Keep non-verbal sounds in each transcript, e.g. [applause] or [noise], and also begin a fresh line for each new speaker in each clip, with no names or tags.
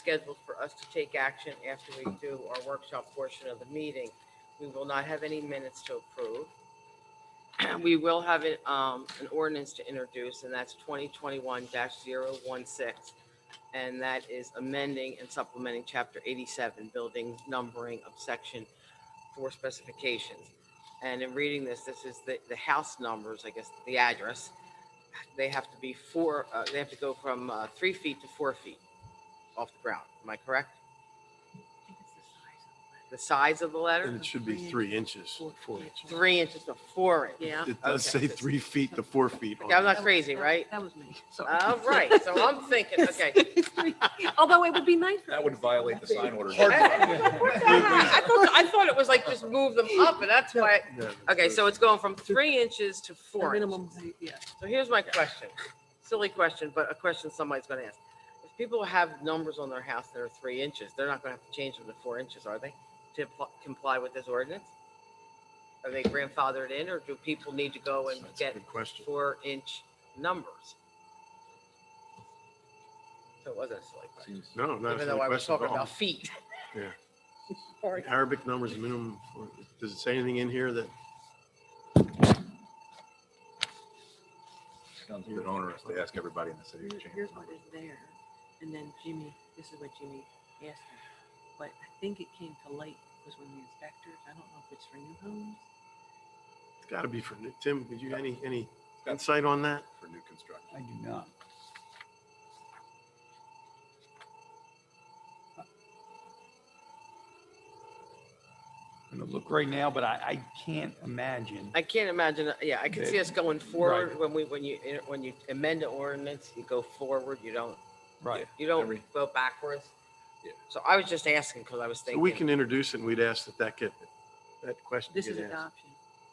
scheduled for us to take action after we do our workshop portion of the meeting. We will not have any minutes to approve. [clears throat] We will have an, um, an ordinance to introduce, and that's twenty twenty-one 16 And that is amending and supplementing chapter eighty-seven, building numbering of section four specifications. And in reading this, this is the, the house numbers, I guess, the address. They have to be four, uh, they have to go from, uh, three feet to four feet off the ground. Am I correct? The size of the
And
letter?
it should be three inches, four inches.
Three inches to four inches.
Yeah.
It does
Okay.
say three feet to four feet. on
Okay, I'm
it.
not crazy, right?
That was me. [laughs]
All right, so I'm thinking, okay. Uh, [laughs]
Although it would be nice.
That would violate the sign order.
I I thought, I thought it was like just move them up, and that's why,
No,
okay, so it's going from three inches to
The
four inches.
minimum height, yeah.
So here's my question, silly question, but a question somebody's gonna ask. If people have numbers on their house that are three inches, they're not gonna have to change them to four inches, are they? To pl- comply with this ordinance? Are they grandfathered in, or do people need to go and
That's a
get
good question.
four inch numbers? So it wasn't a silly question,
No, not a
even though I was
silly question
talking
at all.
about feet.
Arabic numbers minimum, for- does it say anything in here that?
[laughs] Sounds a bit onerous to ask everybody in the city to change.
Here's what is there. And then Jimmy, this is what Jimmy asked me. But I think it came to light was when the inspectors, I don't know if it's for new homes.
It's got to be for, new- Tim, did you, any, any insight on that?
For new construction.
I do not. I'm gonna look right now, but I, I can't imagine.
I can't imagine, uh, yeah, I can see us going forward when we, when you, when you amend the ordinance, you go forward, you don't,
Right.
you don't
Every-
go backwards.
Yeah.
So I was just asking because I was
So we
thinking,
can introduce it and we'd ask that that get, that question
This is
get asked.
adoption,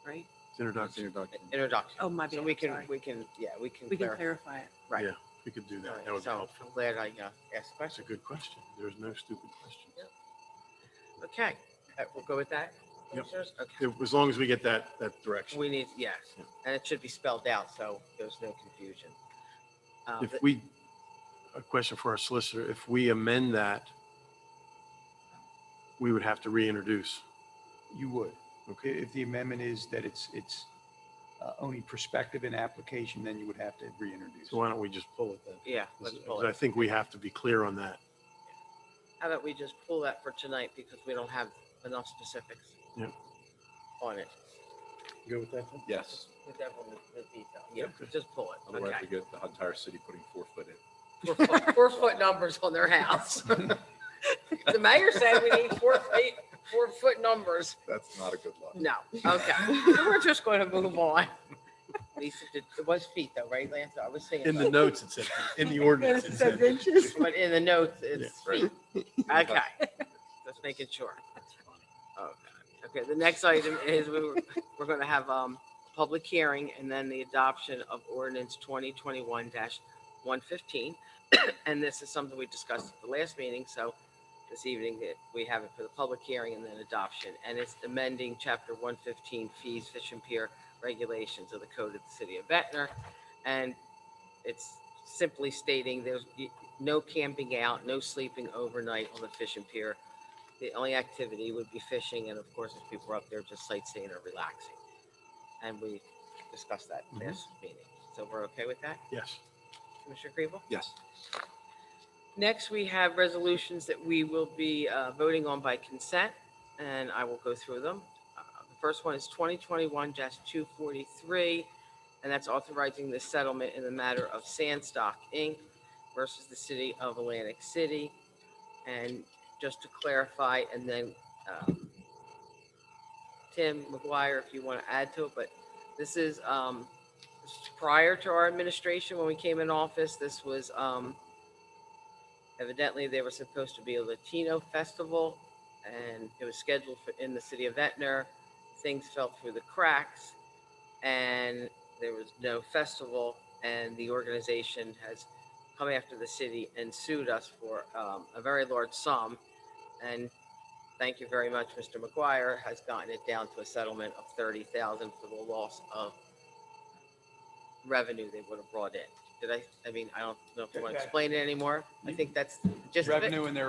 right?
It's introductory.
introduction.
Oh, my
So
bad,
we can,
sorry.
we can, yeah, we can
We can
clarify.
clarify it.
Right.
Yeah, we could do that. That would be
So
helpful.
I'm glad I uh, asked the
That's a
question.
good question. There's no stupid question.
Okay, uh, we'll go with that.
Yep.
Commissioners? Okay.
If- As long as we get that, that direction.
We need, yes,
Yeah.
and it should be spelled out, so there's no confusion. Uh,
If
th-
we, a question for our solicitor, if we amend that, we would have to reintroduce.
You would. Okay, if the amendment is that it's, it's uh, only prospective in application, then you would have to reintroduce.
So why don't we just pull it then?
Yeah, let's pull
Because I
it.
think we have to be clear on that.
How about we just pull that for tonight because we don't have enough specifics?
Yep.
On it.
You Go with that then?
Yes,
The devil in the detail. Yeah,
Okay.
just pull it.
otherwise we
Okay.
get the entire city putting four foot in.
Four foot- Four foot numbers on their house. [laughs] The mayor said we need four feet, four foot numbers.
That's not a good look.
No, [laughs] okay. So We're just going to move on. Lisa, did- it was feet though, right, Lance? I was
In
saying,
the notes it said,
[laughs]
in the ordinance it said.
inches.
but in the notes, it's
Yeah,
feet. Okay. Just making sure. Okay, Okay. the next item is we we're, we're going to have um, a public hearing and then the adoption of ordinance 2021-115. [coughs] And this is something we discussed at the last meeting, so this evening that we have it for the public hearing and then adoption. And it's amending Chapter 115 fees, fish and pier regulations of the code of the city of Ventnor. And it's simply stating there's no camping out, no sleeping overnight on the fish and pier the only activity would be fishing, and of course, if people were up there just sightseeing or relaxing. And we discussed that
Mhm.
last meeting. So we're okay with that,
Yes.
Commissioner Kribel?
Yes.
Next, we have resolutions that we will be uh, voting on by consent, and I will go through them. Uh, The first one is 2021-243, and that's authorizing the settlement in the matter of Sandstock, Inc. versus the City of Atlantic City. And just to clarify, and then um, Tim McGuire, if you want to add to it, but this is um, this is prior to our administration, when we came in office, this was um, Evidently, they were supposed to be a Latino festival, and it was scheduled for, in the city of Ventnor. Things fell through the cracks, and there was no festival. And the organization has come after the city and sued us for um, a very large sum. And thank you very much, Mr. McGuire has gotten it down to a settlement of thirty thousand for the loss of revenue they would have brought in. did I, I mean, I don't know if you want to
Okay.
explain it anymore. I think that's just of it.
Revenue and their